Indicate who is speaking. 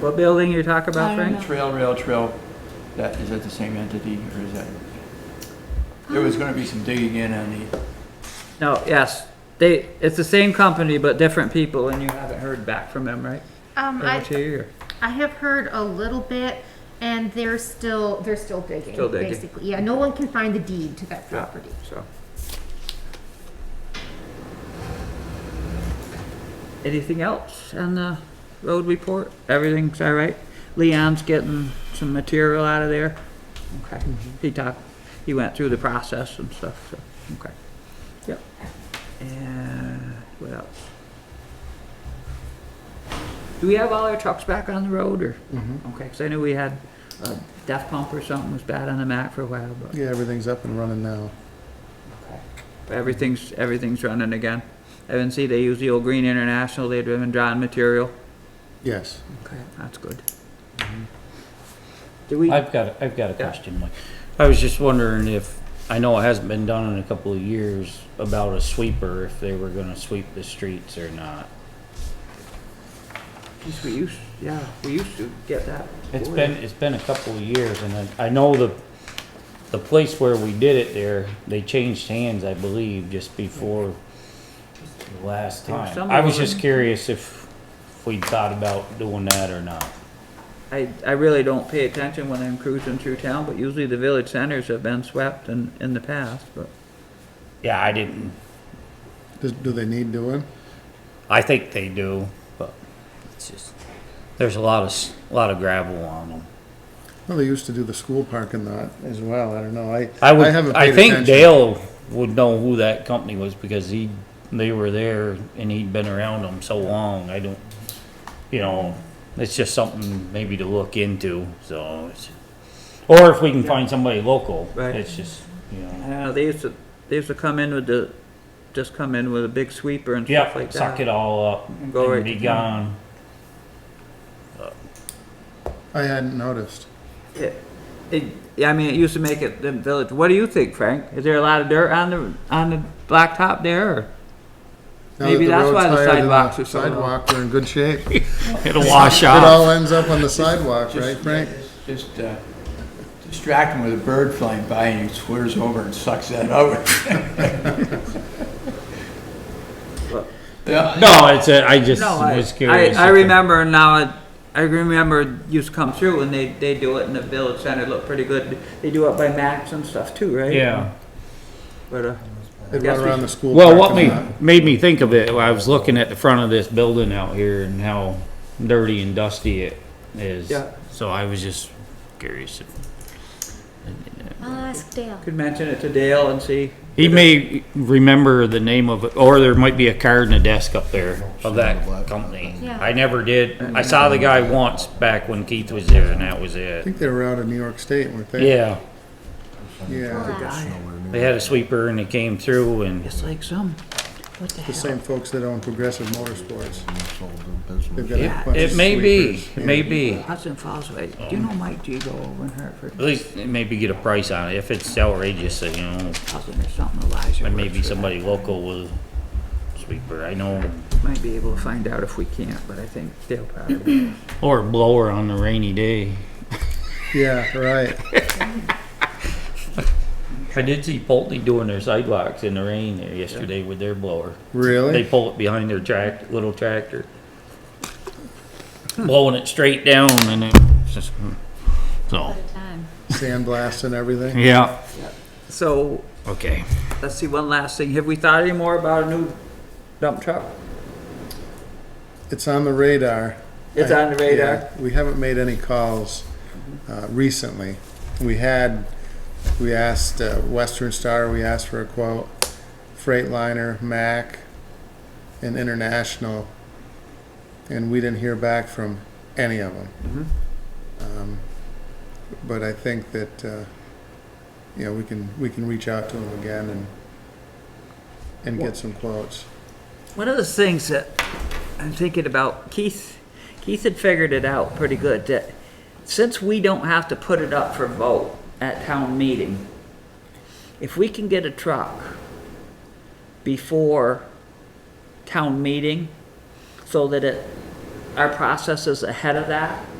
Speaker 1: What building you talk
Speaker 2: I
Speaker 1: about,
Speaker 2: don't
Speaker 1: Frank?
Speaker 3: Trail Rail Trail, that, is that the same entity or is that? There was gonna be some digging in on the,
Speaker 1: No, yes, they, it's the same company, but different people, and you haven't heard back from them, right?
Speaker 4: Um,
Speaker 1: Over
Speaker 4: I,
Speaker 1: to you, or-
Speaker 4: I have heard a little bit, and they're still, they're still digging.
Speaker 1: Still digging.
Speaker 4: Basically, yeah, no one can find the deed to that property.
Speaker 1: So. Anything else on the road report? Everything's all right? Leon's getting some material out of there? Okay, he talked, he went through the process and stuff, so, okay. Yep. And what else? Do we have all our trucks back on the road, or? Okay, because I knew we had a death pump or something was bad on the map for a while, but.
Speaker 2: Yeah, everything's up and running now.
Speaker 1: Everything's, everything's running again. I didn't see they use the old Green International, they'd been drawing material.
Speaker 2: Yes.
Speaker 1: Okay. That's good. Do we,
Speaker 5: I've got, a- I've got a
Speaker 1: Yeah.
Speaker 5: question, Mike. I was just wondering if, I know it hasn't been done in a couple of years, about a sweeper, if they were gonna sweep the streets or not.
Speaker 1: geez, we used, yeah, we used to get that.
Speaker 5: It's
Speaker 1: Boy.
Speaker 5: been, it's been a couple of years, and I, I know the, the place where we did it there, they changed hands, I believe, just before the last
Speaker 1: There was
Speaker 5: time.
Speaker 1: some
Speaker 5: I was
Speaker 1: over-
Speaker 5: just curious if, if we thought about doing that or not.
Speaker 1: I, I really don't pay attention when I'm cruising through town, but usually the village centers have been swept in, in the past, but.
Speaker 5: Yeah, I didn't,
Speaker 2: Does, do they need doing?
Speaker 5: I think they do, but it's just, there's a lot of, s- a lot of gravel on them.
Speaker 2: Well, they used to do the school parking lot as well. I don't know. I
Speaker 5: I would.
Speaker 2: haven't
Speaker 5: I
Speaker 2: paid
Speaker 5: think
Speaker 2: attention.
Speaker 5: Dale would know who that company was because he they were there and he'd been around them so long. I don't, you know, it's just something maybe to look into. So, it's, or if we can find somebody local,
Speaker 1: Right.
Speaker 5: it's just you
Speaker 1: I
Speaker 5: know,
Speaker 1: don't know, they used to, they used to come in with the, just come in with a big sweeper and
Speaker 5: yeah,
Speaker 1: stuff like that.
Speaker 5: suck it all up and,
Speaker 1: go right
Speaker 5: be
Speaker 1: to
Speaker 5: gone.
Speaker 2: I hadn't noticed.
Speaker 1: It, it, yeah, I mean, it used to make it the village. What do you think, Frank? Is there a lot of dirt on the, on the blacktop there, or?
Speaker 2: Now
Speaker 1: Maybe
Speaker 2: that
Speaker 1: that's
Speaker 2: road's
Speaker 1: why the
Speaker 2: tired and
Speaker 1: sidewalks are so low.
Speaker 2: Sidewalk, we're in good shape. It
Speaker 5: It'll wash out.
Speaker 2: all ends up on the sidewalk, right,
Speaker 3: just,
Speaker 2: Frank?
Speaker 3: just uh, distract him with a bird flying by and he swears over and sucks that over. Yeah,
Speaker 5: No, it's a, I just
Speaker 1: No, I,
Speaker 5: was curious.
Speaker 1: I, I
Speaker 5: if it-
Speaker 1: remember now, it- I remember it used to come through and they, they do it in the village center, it looked pretty good. They do it by Max and stuff too, right?
Speaker 5: Yeah.
Speaker 1: But, uh,
Speaker 2: It'd
Speaker 1: Yes,
Speaker 2: run
Speaker 1: we-
Speaker 2: around the school
Speaker 5: Well, what
Speaker 2: parking
Speaker 5: made,
Speaker 2: lot.
Speaker 5: made me think of it, I was looking at the front of this building out here and how dirty and dusty it is.
Speaker 1: Yeah.
Speaker 5: So I was just curious. if-
Speaker 2: I'll
Speaker 4: ask Dale.
Speaker 1: could mention it to Dale and see.
Speaker 5: He may remember the name of it, or there might be a card in a desk up there of that company.
Speaker 4: Yeah.
Speaker 5: I never did. I saw the guy once back when Keith was there and that was
Speaker 2: I
Speaker 5: it.
Speaker 2: think they were out in New York State, weren't they?
Speaker 5: Yeah,
Speaker 2: Yeah,
Speaker 5: they had a sweeper and he came through and,
Speaker 1: It's like some, what the
Speaker 2: the
Speaker 1: hell?
Speaker 2: same folks that own Progressive Motorsports. They've got a
Speaker 5: yeah,
Speaker 2: bunch
Speaker 5: it
Speaker 2: of
Speaker 5: may be,
Speaker 2: sweepers.
Speaker 5: it
Speaker 2: Yeah.
Speaker 5: may be.
Speaker 1: Hudson Falls Way, do you know Mike Gigo over in Hartford?
Speaker 5: At least maybe get a price on it. If it's outrageous, you know,
Speaker 1: Cousin or something, Elijah.
Speaker 5: There may
Speaker 1: works
Speaker 5: be
Speaker 1: for them.
Speaker 5: somebody local with a sweeper, I know,
Speaker 1: Might be able to find out if we can't, but I think Dale probably.
Speaker 5: or a blower on a rainy day.
Speaker 2: Yeah, right.
Speaker 5: I did see Pulte doing their sidewalks in the rain there yesterday with their blower. They
Speaker 2: Really?
Speaker 5: pull it behind their tract, little tractor. Blowing it straight down and it's just, so,
Speaker 2: Sandblast and everything?
Speaker 5: yeah,
Speaker 1: So,
Speaker 5: okay.
Speaker 1: let's see, one last thing. Have we thought any more about a new dump truck?
Speaker 2: It's on the radar.
Speaker 1: It's on the radar.
Speaker 2: Yeah, We haven't made any calls uh, recently. We had, we asked uh, Western Star, we asked for a quote, Freightliner, Mac, and International, and we didn't hear back from any of them.
Speaker 1: Mm-hmm.
Speaker 2: Um, But I think that, uh, you know, we can, we can reach out to them again and, and get some quotes.
Speaker 1: One of the things that I'm thinking about, Keith, Keith had figured it out pretty good that since we don't have to put it up for vote at town meeting, if we can get a truck before town meeting so that it our process is ahead of that.